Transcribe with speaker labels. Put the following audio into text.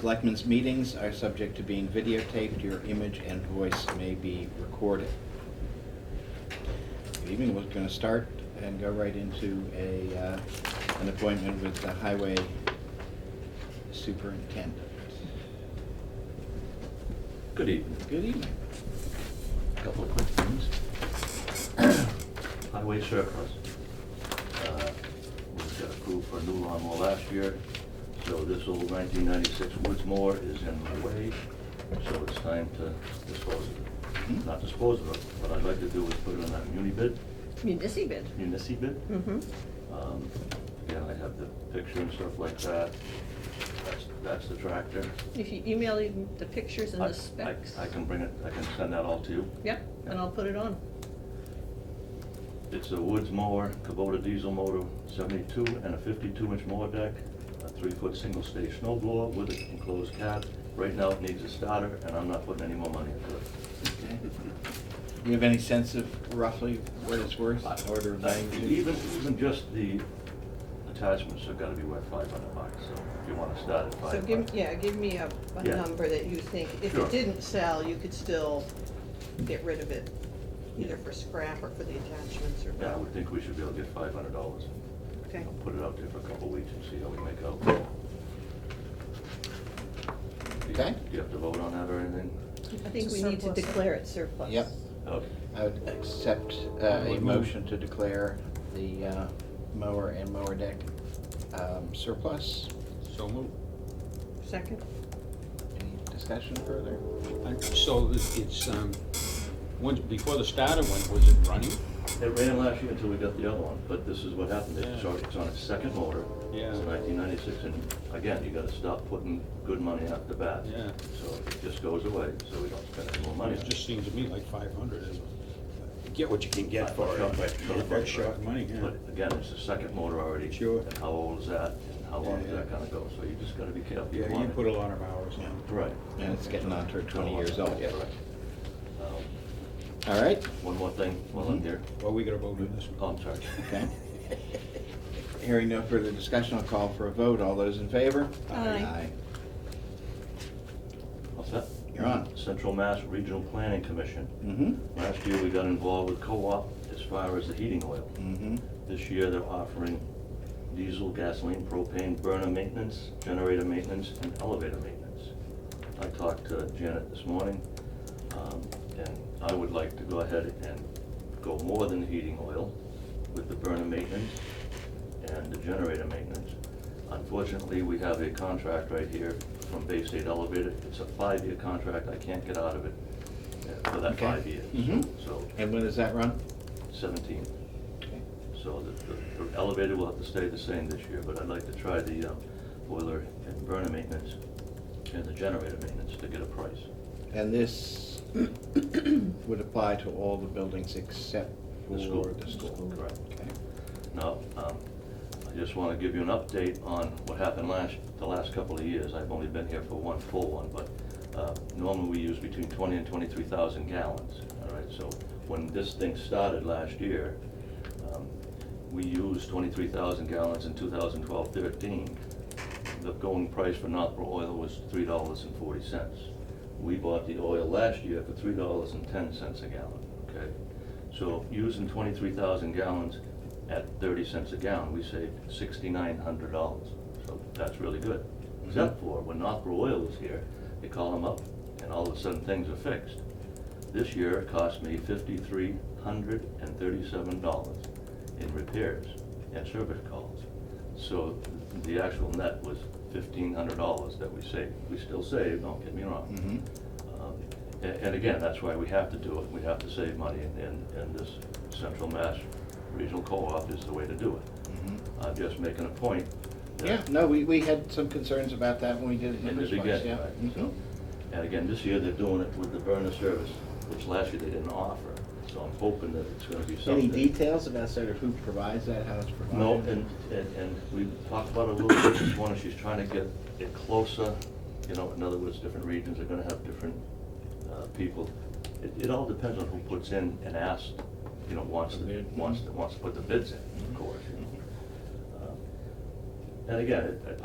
Speaker 1: Selectmen's meetings are subject to being videotaped. Your image and voice may be recorded. Good evening, we're going to start and go right into a, uh, an appointment with the highway superintendent.
Speaker 2: Good evening.
Speaker 1: Good evening.
Speaker 2: Couple of quick things. Highway surplus. uh, Was approved for a new lawnmower last year, so this old 1996 Woods mower is in the way, so it's time to dispose of
Speaker 3: Mm-hmm.
Speaker 2: it. Not dispose of it, what I'd like to do is put it on that muni bid,
Speaker 3: Municipal bid.
Speaker 2: munici bid.
Speaker 3: Mm-hmm.
Speaker 2: Um, Yeah, I have the picture and stuff like that. That's, that's the tractor.
Speaker 3: If you email him the pictures and
Speaker 2: I- I-
Speaker 3: the specs.
Speaker 2: I can bring it, I can send that all to you.
Speaker 3: Yep, and I'll put it on.
Speaker 2: It's a Woods mower, Kubota diesel motor, 72 and a 52-inch mower deck, a three-foot single-stage snow blower with an enclosed cab. Right now, it needs a starter, and I'm not putting any more money into it.
Speaker 1: Okay. Do you have any sense of roughly what it's worth, Uh, order of magnitude?
Speaker 2: Even, even just the attachments have got to be worth 500 bucks, so if you want to start at
Speaker 3: So
Speaker 2: 500.
Speaker 3: give, yeah, give me a, a
Speaker 2: Yeah.
Speaker 3: number that you think, if
Speaker 2: Sure.
Speaker 3: it didn't sell, you could still get rid of it, either for scrap or for the attachments or.
Speaker 2: Yeah, I would think we should be able to get $500.
Speaker 3: Okay.
Speaker 2: I'll Put it out there for a couple of weeks and see how we make out. Do you-
Speaker 1: Okay.
Speaker 2: Do you have to vote on that or anything?
Speaker 3: I think
Speaker 4: To
Speaker 3: we need to
Speaker 4: surplus it.
Speaker 3: declare it surplus.
Speaker 1: Yep.
Speaker 2: Okay.
Speaker 1: I would accept uh, a motion to declare the uh, mower and mower deck um, surplus.
Speaker 5: So moved.
Speaker 3: Second?
Speaker 1: Any discussion further?
Speaker 5: I- So it's, it's, um, once, before the starter went, was it running?
Speaker 2: It ran last year until we got the other one, but this is what happened, it's
Speaker 5: Yeah.
Speaker 2: on, it's on its second motor.
Speaker 5: Yeah.
Speaker 2: It's nineteen ninety-six, and again, you gotta stop putting good money out the bat.
Speaker 5: Yeah.
Speaker 2: So it just goes away, so we don't spend any more money.
Speaker 5: It just seems to me like five hundred is, get what Oh, you can get for it,
Speaker 2: Not much,
Speaker 5: but
Speaker 2: not much,
Speaker 5: that's short
Speaker 2: right.
Speaker 5: money, yeah.
Speaker 2: But again, it's the second motor already.
Speaker 5: Sure.
Speaker 2: And how old is that, and how long is
Speaker 5: Yeah,
Speaker 2: that
Speaker 5: yeah.
Speaker 2: gonna go, so you just gotta be careful.
Speaker 5: Yeah, you
Speaker 2: want it.
Speaker 5: put a lot of hours in.
Speaker 2: Right.
Speaker 1: And it's getting on to 20 years old, Oh, yeah.
Speaker 2: Correct. Um,
Speaker 1: All right,
Speaker 2: One more thing, while I'm
Speaker 1: Mhm.
Speaker 2: here,
Speaker 5: Well, we gotta vote on this one.
Speaker 2: oh, I'm sorry.
Speaker 1: okay. Hearing no further discussion, I'll call for a vote. All those in favor?
Speaker 3: Aye.
Speaker 2: What's that?
Speaker 1: You're on.
Speaker 2: Central Mass Regional Planning Commission.
Speaker 1: Mm-hmm,
Speaker 2: Last year, we got involved with co-op as far as the heating oil.
Speaker 1: mm-hmm.
Speaker 2: This year, they're offering diesel, gasoline, propane, burner maintenance, generator maintenance, and elevator maintenance. I talked to Janet this morning, um, and I would like to go ahead and go more than heating oil with the burner maintenance and the generator maintenance. Unfortunately, we have a contract right here from Bay State Elevator. It's a five-year contract. I can't get out of it uh, for that
Speaker 1: Okay.
Speaker 2: five years.
Speaker 1: Mhm.
Speaker 2: So
Speaker 1: And when does that run?
Speaker 2: seventeen.
Speaker 1: Okay.
Speaker 2: So the- the the elevator will have to stay the same this year, but I'd like to try the um, boiler and burner maintenance and the generator maintenance to get a price.
Speaker 1: And this would apply to all the buildings except for
Speaker 2: The school.
Speaker 1: the school.
Speaker 2: Correct.
Speaker 1: Okay.
Speaker 2: Now, um, I just want to give you an update on what happened last, the last couple of years. I've only been here for one full one, but uh, normally we use between 20 and 23,000 gallons, all right? So when this thing started last year, um, we used 23,000 gallons in 2012-13. The going price for Northborough oil was $3.40. We bought the oil last year for $3.10 a gallon, okay? So using twenty-three thousand gallons at thirty cents a gallon, we saved sixty-nine hundred dollars. So that's really good. Except for when Northborough Oil was here, they call them up and all of a sudden things are fixed. This year it cost me fifty-three hundred and thirty-seven dollars in repairs and service calls. So the actual net was fifteen hundred dollars that we saved. We still save, don't get me wrong.
Speaker 1: Mm-hmm.
Speaker 2: Um, a- And again, that's why we have to do it, we have to save money, and- and, and this Central Mass Regional Co-op is the way to do it.
Speaker 1: mm-hmm.
Speaker 2: I'm just making a point. that-
Speaker 1: Yeah, no, we, we had some concerns about that when we did it in
Speaker 2: In
Speaker 1: the
Speaker 2: the
Speaker 1: first place,
Speaker 2: beginning,
Speaker 1: yeah.
Speaker 2: right, so,
Speaker 1: Mhm.
Speaker 2: and again, this year they're doing it with the burner service, which last year they didn't offer, so I'm hoping that it's gonna be
Speaker 1: Any
Speaker 2: something.
Speaker 1: details about sort of who provides that, how it's provided?
Speaker 2: No, and, and, and we talked about it a little bit this morning, she's trying to get it closer, you know, in other words, different regions are gonna have different, uh, people. It, it all depends on who puts in and asks, you know, wants, to-
Speaker 1: The bid.
Speaker 2: wants, to- wants to put the bids in, of course, you know. Um, And again, it- I,